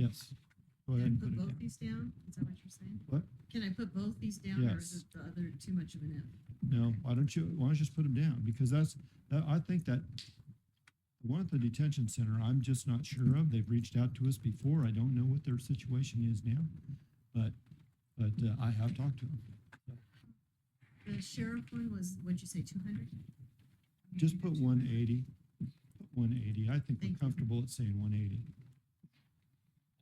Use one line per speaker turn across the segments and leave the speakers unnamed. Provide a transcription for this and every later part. Yes. Go ahead and
Can
put
I put
it
both
down.
these down? Is that what you're saying?
What?
Can I put both these down or
Yes.
is it the other too much of an
No, why don't you, why don't you just put them down? Because that's, that- I think that one at the detention center, I'm just not sure of. They've reached out to us before. I don't know what their situation is now. But, but uh, I have talked to them.
if? The sheriff one was, what'd you say, two hundred?
Just put one eighty, one eighty. I think
Thank
we're
you.
comfortable at saying one eighty.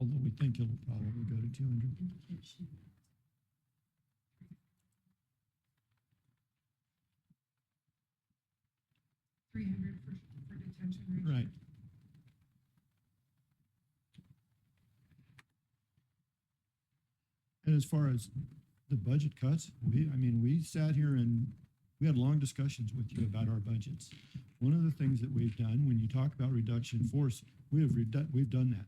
Although we think it'll probably go to two hundred.
Indication. Three hundred for, for detention.
Right. And as far as the budget cuts, we, I mean, we sat here and we had long discussions with you about our budgets. One of the things that we've done, when you talk about reduction in force, we have redu- we've done that.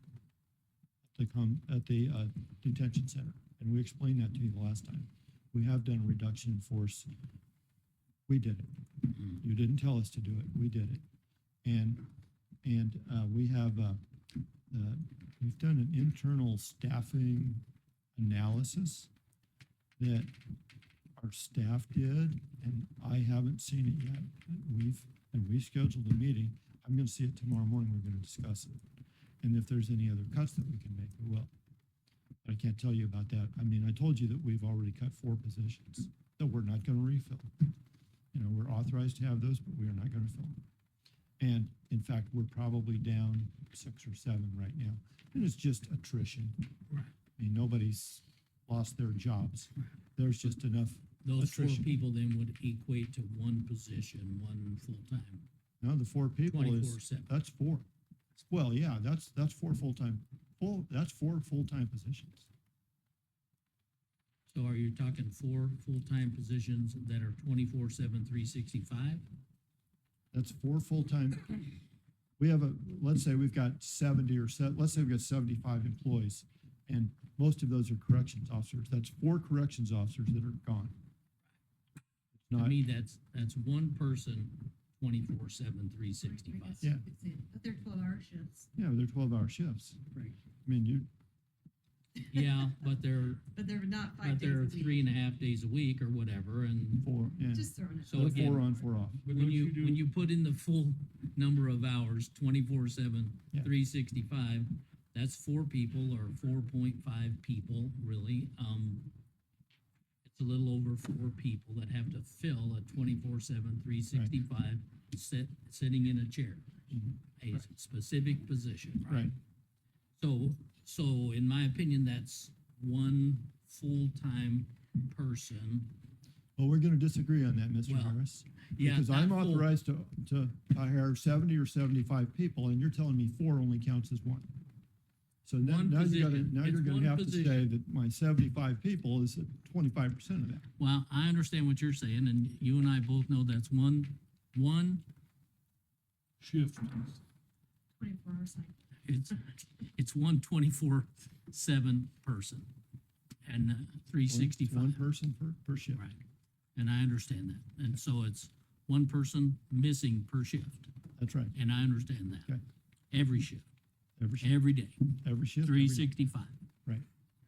To come at the uh, detention center, and we explained that to you the last time. We have done a reduction in force. We did it. You didn't tell us to do it. We did it. And, and uh, we have, uh, uh, we've done an internal staffing analysis that our staff did, and I haven't seen it yet. We've, and we scheduled a meeting. I'm gonna see it tomorrow morning. We're gonna discuss it. And if there's any other cuts that we can make, we will. But I can't tell you about that. I mean, I told you that we've already cut four positions that we're not gonna refill. You know, we're authorized to have those, but we are not gonna fill them. And in fact, we're probably down six or seven right now. And it's just attrition.
Right.
I mean, nobody's lost their jobs. There's just enough,
Those four
Attrition.
people then would equate to one position, one full-time,
now the four people
twenty-four
is,
seven.
that's four. Well, yeah, that's, that's four full-time, full, that's four full-time positions.
So are you talking four full-time positions that are twenty-four seven, three sixty-five?
That's four full-time. We have a, let's say we've got seventy or se, let's say we've got seventy-five employees. And most of those are corrections officers. That's four corrections officers that are gone. It's
To
Not,
me, that's, that's one person, twenty-four seven, three sixty-five.
Yeah.
But they're twelve hour shifts,
yeah, they're twelve-hour shifts.
Right.
I mean, you,
Yeah, but they're,
but they're not five
but
days
they're
a week.
three and a half days a week or whatever, and
four, yeah,
Just throwing it.
So
out
They're
again-
there.
four on, four off.
But
when
don't
you,
do-
when you put in the full number of hours, twenty-four seven,
Yeah.
three sixty-five, that's four people or four point five people, really. Um, it's a little over four people that have to fill a twenty-four seven, three sixty-five, sit, sitting in a chair.
Mhm.
A specific position, right?
Right.
So, so in my opinion, that's one full-time person.
Well, we're gonna disagree on that, Mr.
Well,
Harris.
Yeah,
Because I'm
not full-
authorized to, to hire seventy or seventy-five people, and you're telling me four only counts as one. So now,
One
now you gotta,
position.
now you're
It's one
gonna have to
position.
say that my seventy-five people is twenty-five percent of that.
Well, I understand what you're saying, and you and I both know that's one, one,
Shift.
Twenty-four hours, like,
it's, it's one twenty-four seven person and uh, three
One- it's One
sixty-five.
person per, per shift.
Right, and I understand that, and so it's one person missing per shift,
That's right.
and I understand that.
Okay.
Every shift,
Every, shi-
every day,
every shift. every
three
day.
sixty-five.
Right.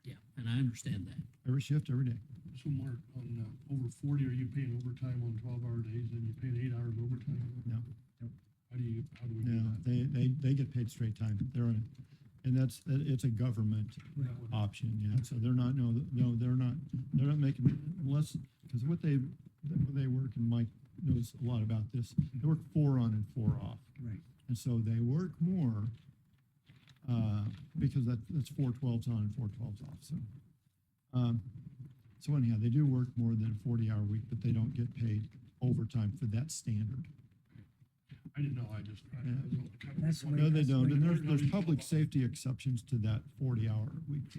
Yeah, and I understand that.
Every shift, every day.
So Mark, on uh, over forty, are you paying overtime on twelve hour days and you're paying eight hours overtime?
No.
How do you, how do we do
No,
that?
they, they, they get paid straight time. They're on, it, and that's, it's a government
That would-
option, yeah, so they're not, no, no, they're not, they're not making, unless, because what they, they work, and Mike knows a lot about this, they work four on and four off.
Right.
And so they work more, uh, because that, that's four twelves on and four twelves off, so. Um, so anyhow, they do work more than a forty-hour week, but they don't get paid overtime for that standard.
I didn't know, I just. I- I
Yeah.
was on- kind of
That's the way
No,
wondering.
they don't, and there's,
Everybody
there's
knows
public
about-
safety exceptions to that forty-hour week.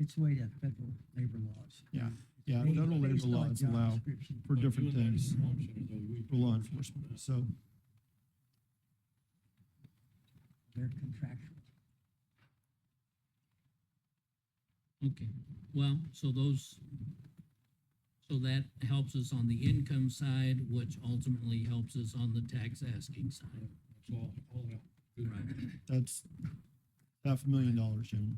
It's the way that federal labor laws.
Yeah, yeah,
They-
federal labor
based on
laws
job
allow
description.
for
But
different
doing that
things
is an option, though, we-
for law enforcement, so.
They're contractual.
Okay, well, so those, so that helps us on the income side, which ultimately helps us on the tax asking side.
It's all, all out.
Right.
That's, half a million dollars, gentlemen.